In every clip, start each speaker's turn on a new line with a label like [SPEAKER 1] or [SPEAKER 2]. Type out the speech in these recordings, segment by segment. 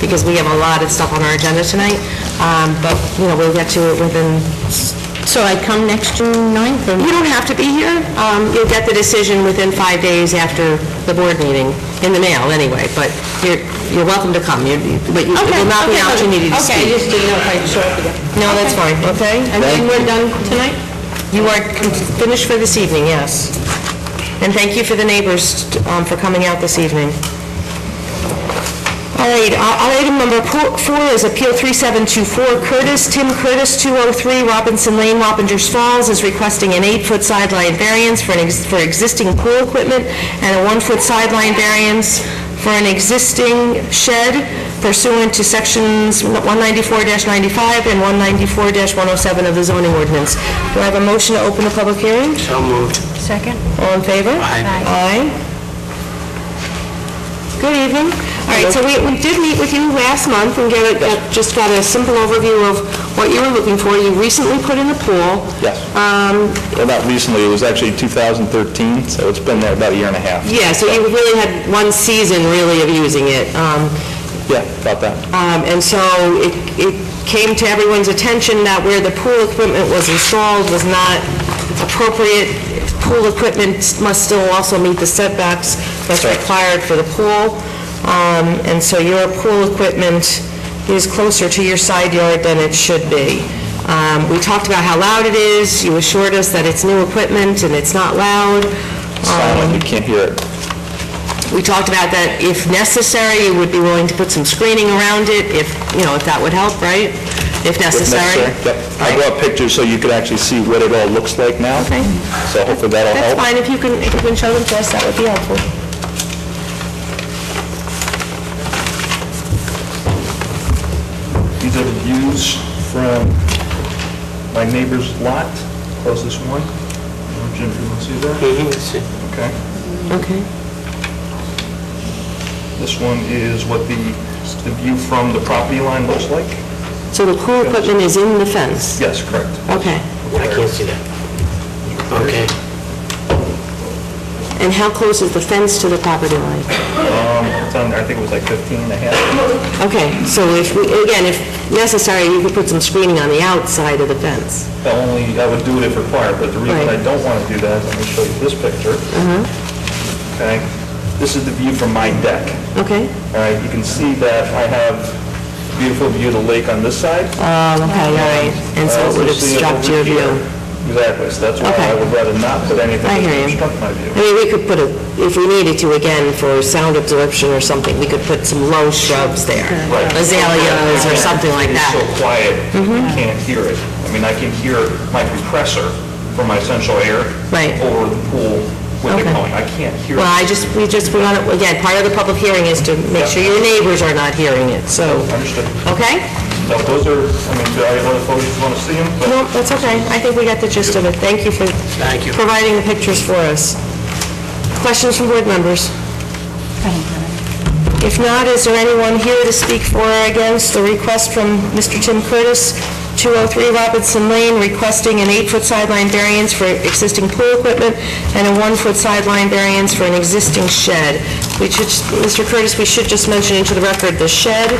[SPEAKER 1] because we have a lot of stuff on our agenda tonight, Um, but, you know, we'll get to it within,
[SPEAKER 2] So I come next June 9th,
[SPEAKER 1] you
[SPEAKER 2] and
[SPEAKER 1] don't have to be here. Um, You'll get the decision within five days after the board meeting, in the mail anyway, but you're, you're welcome to come, You- you- but you- it will not be an opportunity to
[SPEAKER 2] Okay, I
[SPEAKER 1] speak.
[SPEAKER 2] just didn't know if I'd show up again.
[SPEAKER 1] No, that's fine, okay?
[SPEAKER 2] And then we're done tonight?
[SPEAKER 1] You are com- finished for this evening, yes. And thank you for the neighbors um, for coming out this evening. All right, uh, item number po- four is Appeal 3724 Curtis, Tim Curtis, 203 Robinson Lane, Wappingers Falls, is requesting an eight-foot sideline variance for an ex- for existing pool equipment and a one-foot sideline variance for an existing shed pursuant to Sections 194-95 and 194-107 of the zoning ordinance. Do I have a motion to open the public hearing?
[SPEAKER 3] So moved.
[SPEAKER 2] Second.
[SPEAKER 1] All in favor?
[SPEAKER 3] Aye.
[SPEAKER 1] Aye. Good evening. All right, so we we did meet with you last month and get, a- just got a simple overview of what you were looking for. You recently put in a pool.
[SPEAKER 4] Yes.
[SPEAKER 1] Um,
[SPEAKER 4] Well, not recently, it was actually 2013, so it's been there about a year and a half.
[SPEAKER 1] Yeah, so you really had one season really of using it. Um,
[SPEAKER 4] Yeah, about that.
[SPEAKER 1] Um, And so it it came to everyone's attention that where the pool equipment was installed was not appropriate. Pool equipment must still also meet the setbacks that's
[SPEAKER 4] Correct.
[SPEAKER 1] required for the pool. Um, And so your pool equipment is closer to your side yard than it should be. Um, We talked about how loud it is. You assured us that it's new equipment and it's not loud. Um,
[SPEAKER 4] It's silent, you can't hear it.
[SPEAKER 1] We talked about that if necessary, you would be willing to put some screening around it, if, you know, if that would help, right? If
[SPEAKER 4] If
[SPEAKER 1] necessary.
[SPEAKER 4] necessary. Yep. I brought pictures so you could actually see what it all looks like now.
[SPEAKER 1] Okay.
[SPEAKER 4] So hopefully that'll
[SPEAKER 1] That's
[SPEAKER 4] help.
[SPEAKER 1] fine, if you can, if you can show them to us, that would be helpful.
[SPEAKER 4] These are the views from my neighbor's lot, closest one. Jim, you want to see that? Okay.
[SPEAKER 1] Okay.
[SPEAKER 4] This one is what the, the view from the property line looks like?
[SPEAKER 1] So the pool equipment is in the fence?
[SPEAKER 4] Yes, correct.
[SPEAKER 1] Okay.
[SPEAKER 3] I can't see that. Okay.
[SPEAKER 1] And how close is the fence to the property line?
[SPEAKER 4] It's on there, I think it was like 15 and a half.
[SPEAKER 1] Okay, so if, we again, if necessary, you could put some screening on the outside of the fence.
[SPEAKER 4] The only, I would do it if required, but the reason I don't want to do that, let me show you this picture.
[SPEAKER 1] Mm-hmm.
[SPEAKER 4] Okay, this is the view from my deck.
[SPEAKER 1] Okay?
[SPEAKER 4] All right, you can see that I have beautiful view of the lake on this side.
[SPEAKER 1] Oh, okay, all right. And so it would obstruct your view.
[SPEAKER 4] Exactly, so that's why I
[SPEAKER 1] Okay.
[SPEAKER 4] would rather not put anything
[SPEAKER 1] I
[SPEAKER 4] that
[SPEAKER 1] hear you.
[SPEAKER 4] would obstruct my view.
[SPEAKER 1] I mean, we could put a, if we needed to, again, for sound absorption or something, we could put some low shrubs there.
[SPEAKER 4] Right.
[SPEAKER 1] Azaleas or something like
[SPEAKER 4] It's
[SPEAKER 1] that.
[SPEAKER 4] so quiet, you can't hear it. I mean, I can hear my compressor for my central air
[SPEAKER 1] Right.
[SPEAKER 4] over the pool with the
[SPEAKER 1] Okay.
[SPEAKER 4] going. I can't hear it.
[SPEAKER 1] Well, I just, we just, we want to, again, part of the public hearing is to make sure your neighbors are not hearing it, so,
[SPEAKER 4] Understood.
[SPEAKER 1] okay?
[SPEAKER 4] No, those are, I mean, do I have other photos, you want to see them? But
[SPEAKER 1] No, that's okay, I think we got the gist of it. Thank you for
[SPEAKER 3] Thank you.
[SPEAKER 1] providing the pictures for us. Questions from board members? If not, is there anyone here to speak for or against the request from Mr. Tim Curtis, 203 Robinson Lane, requesting an eight-foot sideline variance for existing pool equipment and a one-foot sideline variance for an existing shed? We should, Mr. Curtis, we should just mention into the record the shed,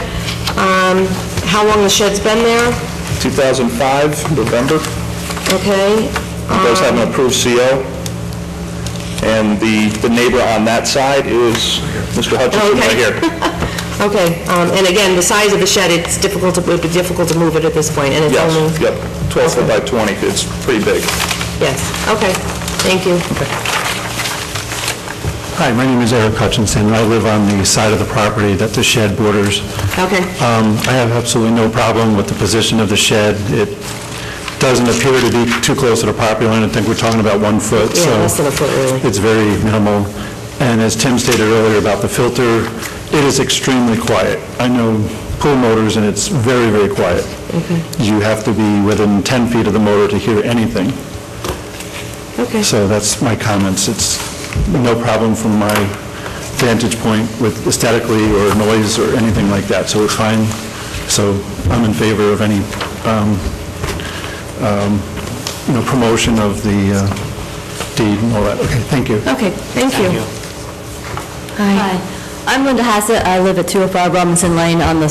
[SPEAKER 1] um, how long the shed's been there,
[SPEAKER 4] 2005, November,
[SPEAKER 1] okay?
[SPEAKER 4] it does
[SPEAKER 1] Um,
[SPEAKER 4] have an approved CO, and the, the neighbor on that side is Mr. Hutchinson Oh, right
[SPEAKER 1] Oh, Okay.
[SPEAKER 4] here.
[SPEAKER 1] Okay, um, and again, the size of the shed, it's difficult to, it would be difficult to move it at this point, and it's only...
[SPEAKER 4] Yes, yep, 12 foot by 20, it's pretty big.
[SPEAKER 1] Yes, okay, thank you.
[SPEAKER 5] Hi, my name is Eric Hutchinson, and I live on the side of the property that the shed borders.
[SPEAKER 1] Okay,
[SPEAKER 5] Um, I have absolutely no problem with the position of the shed. It doesn't appear to be too close to the property line, I think we're talking about one foot, so...
[SPEAKER 1] yeah, less than a foot, really.
[SPEAKER 5] It's very minimal. And as Tim stated earlier about the filter, it is extremely quiet. I know pool motors, and it's very, very quiet. You have to be within 10 feet of the motor to hear anything.
[SPEAKER 1] Okay,
[SPEAKER 5] So that's my comments. It's no problem from my vantage point with aesthetically or noise or anything like that, so we're fine. So I'm in favor of any, um, um, you know, promotion of the uh, deed and all that. Okay, thank you.
[SPEAKER 1] okay, thank you.
[SPEAKER 6] Hi. I'm Linda Hassett. I live at 205 Robinson Lane on the